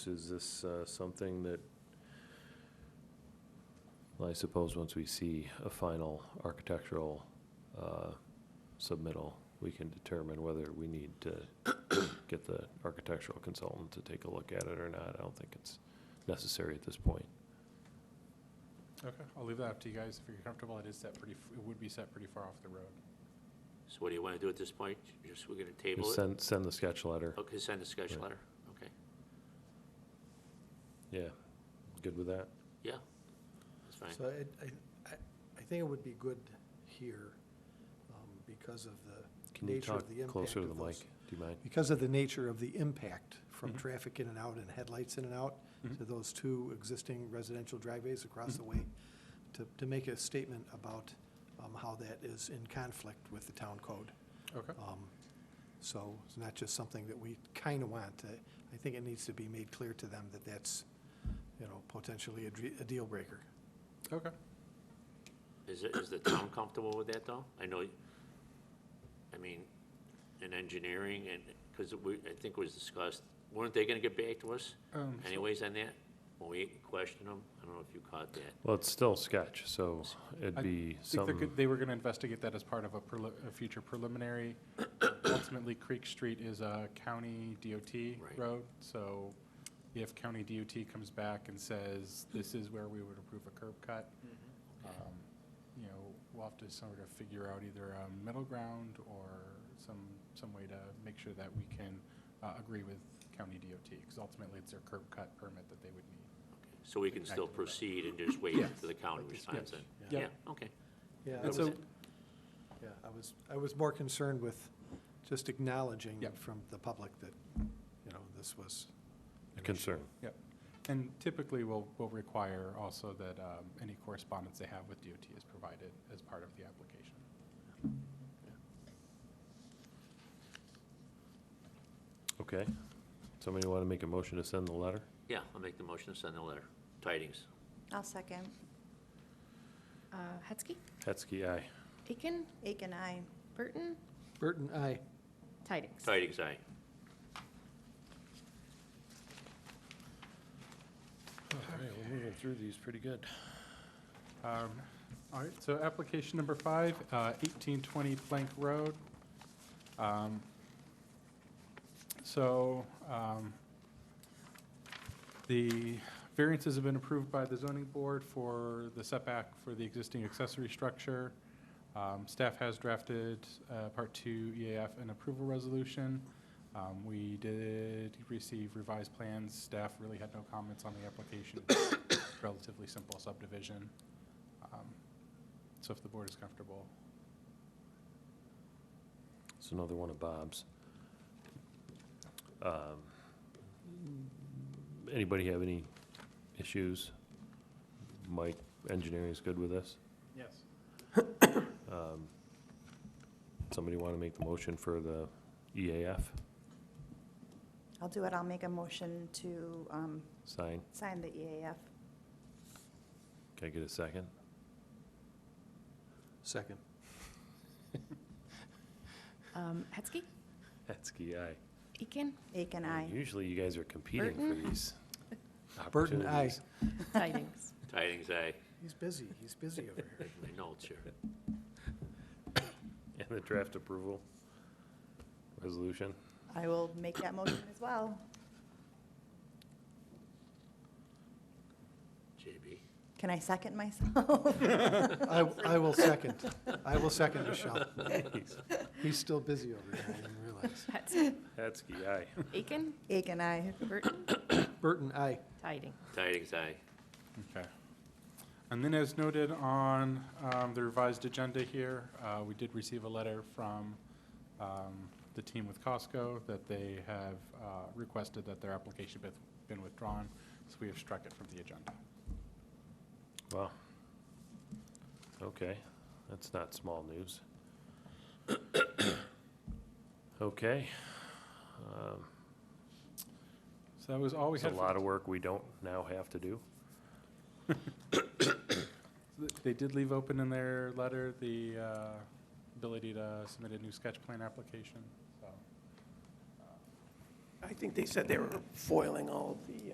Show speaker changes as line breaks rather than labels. Is this uh, something that, well, I suppose once we see a final architectural uh, submittal, we can determine whether we need to get the architectural consultant to take a look at it or not. I don't think it's necessary at this point.
Okay, I'll leave that up to you guys. If you're comfortable, it is set pretty, f- it would be set pretty far off the road.
So what do you want to do at this point? Just, we're going to table
Just
it?
send, send the sketch letter.
Okay, send a sketch
Right.
letter. Okay,
Yeah, good with that?
yeah, that's fine.
So it- I, I, I think it would be good here um, because of the
Can you
nature
talk
of the impact
closer to the mic?
of
Mm-hmm.
those.
Do you mind?
Because of the nature of the impact from
Mhm.
traffic in and out and headlights in and out
Mm-hmm.
Mhm.
to those two existing residential driveways across the way, to, to make a statement about um, how that is in conflict with the town code.
Okay,
Um, So it's not just something that we kind of want. I I think it needs to be made clear to them that that's, you know, potentially a dre- a deal breaker.
okay.
Is, it- is the town comfortable with that, though? I know, I mean, in engineering, and, because we, I think it was discussed, weren't they going to get back to us
Um, so-
anyways on that? When we questioned them? I don't know if you caught that.
Well, it's still sketch, so it'd
I
be
think they're
something.
good- They were going to investigate that as part of a preli- a future preliminary. Ultimately, Creek Street is a county DOT
Right.
road, so if county DOT comes back and says, this is where we would approve a curb cut,
Mm-hmm.
um, you know, we'll have to sort of figure out either a middle ground or some, some way to make sure that we can uh, agree with county DOT, because ultimately it's their curb cut permit that they would need.
So we can still proceed and just wait
Yes.
for the county
Like this,
response then?
Yeah.
Yeah, okay.
Yeah, I
And
was,
so,
yeah, I was, I was more concerned with just acknowledging
Yep.
from the public that, you know, this was. an
Concern.
and typically we'll, we'll require also that um, any correspondence they have with DOT is provided as part of the application.
Okay. Somebody want to make a motion to send the letter?
Yeah, I'll make the motion to send the letter. Tidings.
I'll second.
Uh, Hetzke,
Hetzke, aye.
Aiken,
Aiken, aye.
Burton,
issue. Burton, aye.
Tidings.
Tidings, aye.
All right, we're moving through these pretty good.
Um, All right, so application number five, uh, 1820 Plank Road. Um, So um, the variances have been approved by the zoning board for the setback for the existing accessory structure. Um, Staff has drafted uh, Part 2 EAF and approval resolution. Um, We did receive revised plans. Staff really had no comments on the application. Relatively simple subdivision. Um, So if the board is comfortable.
It's another one of Bob's. Um, Anybody have any issues? Mike, engineering is good with this?
Yes.
Um, Somebody want to make the motion for the E EAF
I'll do it. I'll make a motion to um,
sign?
sign the E EAF.
Can I get a second?
Second.
Um, Hetzke,
Hetzke, aye.
Aiken,
Aiken,
Man,
aye.
Usually you guys are competing for
Burton?
these
Burton, aye.
opportunities.
Tidings.
Tidings, aye.
He's busy, he's busy over here.
Make My notes here.
And the draft approval resolution.
I will make that motion as well.
JB.
Can I second myself?
I, I will second, I will second Michelle. He's still busy over here, I didn't realize.
Hetzke,
Hetzke, aye.
Aiken,
Aiken, aye.
Burton,
Burton, aye.
Tidings.
Tidings, aye.
Okay. And then as noted on um, the revised agenda here, uh, we did receive a letter from um, the team with Costco that they have uh, requested that their application be- been withdrawn, so we have struck it from the agenda.
Wow. Okay, that's not small news. Okay. Um,
So that was all we
It's a
had.
lot of work we don't now have to do.
They did leave open in their letter the uh, ability to submit a new sketch plan application, so.
I think they said they were foiling all of the